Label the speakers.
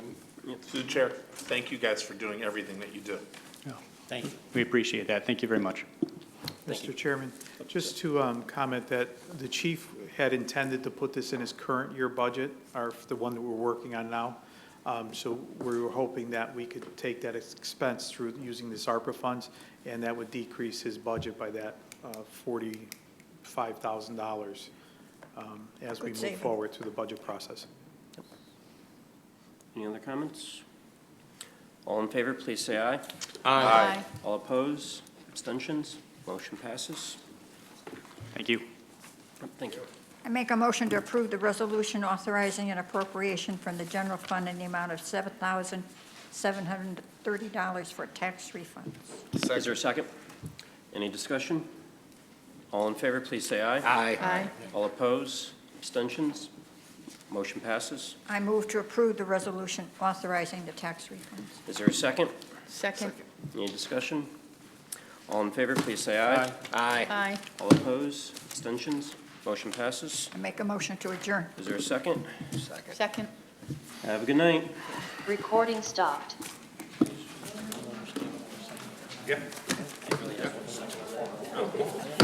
Speaker 1: Through the chair, thank you guys for doing everything that you do.
Speaker 2: Thank you.
Speaker 3: We appreciate that. Thank you very much.
Speaker 4: Mr. Chairman, just to um, comment that the chief had intended to put this in his current year budget, or the one that we're working on now. Um, So we were hoping that we could take that expense through using this ARPA funds, and that would decrease his budget by that uh, $45,000 um, as we
Speaker 5: Good
Speaker 4: move
Speaker 5: saving.
Speaker 4: forward through the budget process.
Speaker 2: Any other comments? All in favor, please say aye.
Speaker 5: Aye.
Speaker 2: All opposed, abstentions, motion passes.
Speaker 3: Thank you.
Speaker 2: Thank you.
Speaker 5: I make a motion to approve the resolution authorizing an appropriation from the general fund in the amount of $7,730 for tax refunds.
Speaker 2: Is there a second? Any discussion? All in favor, please say aye.
Speaker 5: Aye.
Speaker 2: All opposed, abstentions, motion passes.
Speaker 5: I move to approve the resolution authorizing the tax refunds.
Speaker 2: Is there a second?
Speaker 6: Second.
Speaker 2: Any discussion? All in favor, please say aye. Aye.
Speaker 6: Aye.
Speaker 2: All opposed, abstentions, motion passes.
Speaker 5: I make a motion to adjourn.
Speaker 2: Is there a second?
Speaker 6: Second.
Speaker 2: Have a good night.
Speaker 7: Recording stopped.